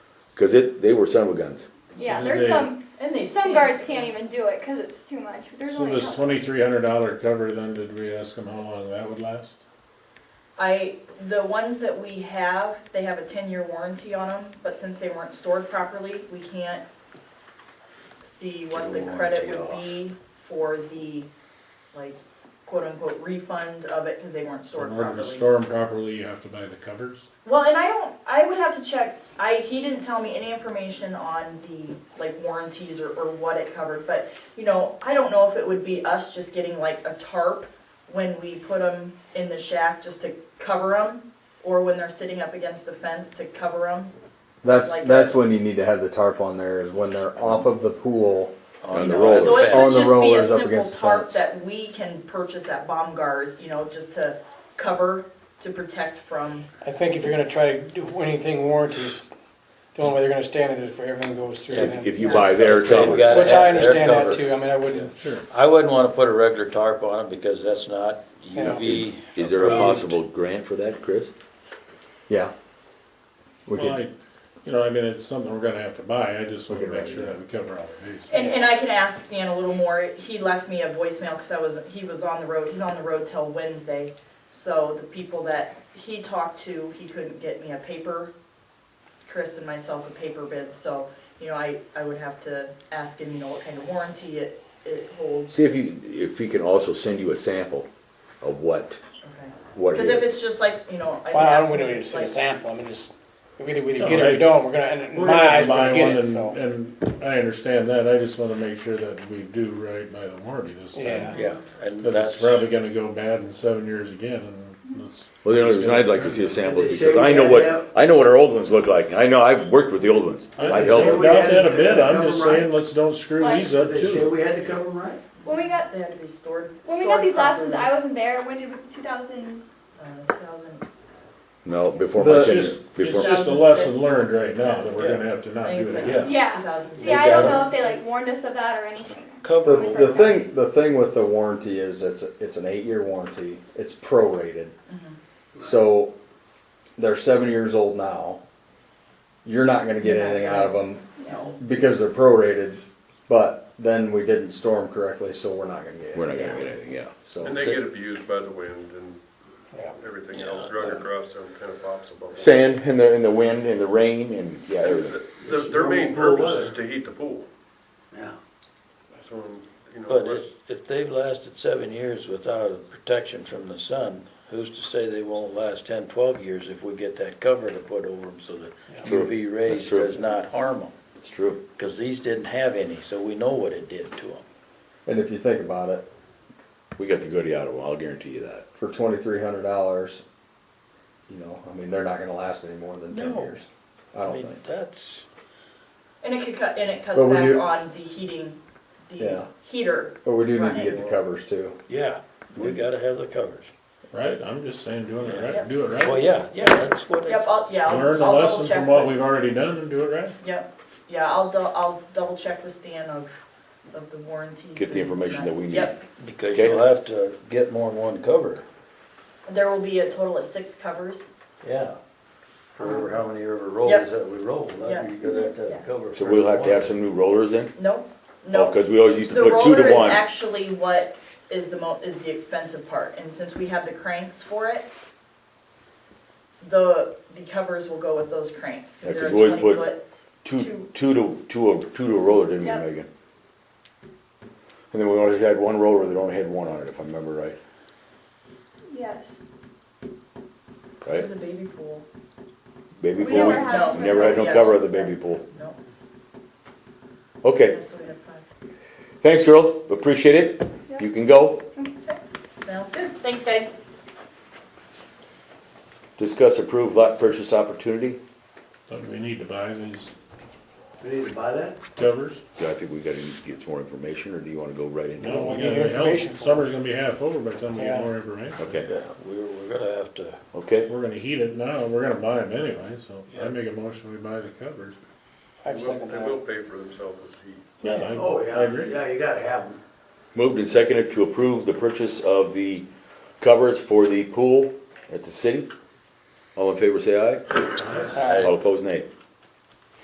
Cause it, they were son of a guns. Yeah, So there's they- some, And they some sing. guards can't even do it because it's too much. There's So only. a this couple. twenty-three hundred dollar cover, then did we ask them how long that would last? I, the ones that we have, they have a ten-year warranty on them, but since they weren't stored properly, we can't see what the Get a credit warranty would off. be for the, like, quote-unquote refund of it, because they weren't stored In order to properly. store them properly, you have to buy the covers? Well, and I don't, I would have to check, I, he didn't tell me any information on the, like, warranties or, or what it covered, but, you know, I don't know if it would be us just getting like a tarp when we put them in the shack just to cover them, or when they're sitting up against the fence to cover them. That's Like that's that. when you need to have the tarp on there is when they're off of the pool. On the rollers. So it On the could rollers up just be a simple against the tarp fence. that we can purchase at Baumgart's, you know, just to cover, to protect from, I think if you're gonna try to do anything warranties, the only way they're gonna stand it is if everything goes through If, them. if you buy their They've got covers. it. Which I They're understand that covered. too, I mean, I wouldn't, Sure. I wouldn't wanna put a regular tarp on it because that's not Yeah. UV. Is there a approved. possible grant for that, Chris? Yeah. We Well, could, I, you know, I mean, it's something we're gonna have to buy, I just wanna Okay, make right, sure yeah. that we cover all the bases. And, and I can ask Stan a little more, he left me a voicemail, cause I was, he was on the road, he's on the road till Wednesday. So the people that he talked to, he couldn't get me a paper, Chris and myself a paper bid, so, you know, I, I would have to ask him, you know, what kind of warranty it, it holds. See if you, if he can also send you a sample of what, Okay. what it Cause if is. it's just like, you know, I can well, I ask don't, him, we don't need to it's see a like, sample, I mean, just, we either, we No, either get it I- or don't, we're gonna, and in We're my gonna eyes, we're buy gonna get one, it, and- so. And I understand that, I just wanna make sure that we do right by the warranty this Yeah. time. Yeah, and Cause it's that's, probably gonna go bad in seven years again, and that's. Well, the only reason I'd like to see a sample Did is they say because I we know had what, it I know what our old ones look like. and I know, I've worked with the old ones. I I've I helped say doubt them. we had that a to bit, I'm cover just right. saying, let's don't screw Like- these up They say too. we had to cover them right. When we got, They had to be stored. when we got these last ones, stored I wasn't there. When did we, two thousand? properly. Uh, 2000 No, before It's my tenure, just, it's before, just a lesson learned right now that we're gonna have to I not think do it's it like again. Yeah. 2006. See, I don't know if they like warned us of that or anything. cover, the, the thing the thing with the warranty is it's it's an eight year warranty. It's prorated, so they're seven years old now. You're not going to get You're not anything out of them No. because they're prorated, but then we didn't store them correctly, so we're not going to get. we're not anything. gonna get anything, yeah. So And they get abused by the wind and Yeah. everything Yeah. else, drug across them kind of pops above. Sand and the, and the wind and the rain and, yeah, everything. Their, their main purpose is to heat the pool, Yeah. so, you know. but let's- if, if they've lasted seven years without a protection from the sun, who's to say they won't last ten, twelve years if we get that cover to put over them so that True. UV That's rays true. does not harm them? It's true. Cause these didn't have any, so we know what it did to them. and if you think about it, We got the goodie out of them, I'll guarantee you that. for twenty three hundred dollars, you know, I mean, they're not gonna last any more than ten No. years. I I don't mean, think. that's, And it could cut, and it cuts But when back you- on the heating, Yeah. the heater. But we do need to running. get the covers too. yeah, we gotta have the covers. Right, I'm just saying, doing it Yep. right, do it right. Well, yeah, yeah, that's what Yep, it's, I'll, yeah, I'll I'll Learn a double lesson check. from what with- we've already done and do it right. Yep, yeah, I'll, dou- I'll double check with Stan of, of the warranties. Get the and information that we need. Yep, because Okay. you'll have to get more than one cover, there will be a total of six covers. yeah. For how many ever rolls Yep. that we roll, Yeah. that you're gonna have to have a cover. So for we'll have to have one. some new rollers in? Nope, nope. Because we always used to The put two roller to is one. actually what is the mo, is the expensive part, and since we have the cranks for it, the, the covers will go with those cranks, Yeah, cause they're 'cause we always twenty put- foot. Two, two. two to, two, a- two to a roller, didn't Yep. we, Megan? And then we always had one roller that only had one on it, if I remember right, Yes. right? It's a baby pool, Baby We pool, never we had. No. never had no Yeah. cover of the baby pool. nope, Okay, so we have five. thanks girls, appreciate it. Yep. You can go. Sounds good, thanks guys. Discuss approved lot purchase opportunity. So do we need to buy these We need to buy that? covers? Do I think we gotta get some more information, or do you wanna go right into? No, it? we need got information for Summer's gonna be half over by the time we get Yeah. more information. Okay, Yeah, we're, we're gonna have to, okay. We're gonna heat it now, we're gonna buy them anyway, so I make a motion, we buy the covers. I'd They will- second They will that. pay for themselves with heat. Yeah, I, Oh, I yeah, agree. yeah, you gotta have them. Moved and seconded to approve the purchase of the covers for the pool at the city. All in favor, say aye. Aye. All opposed, nay.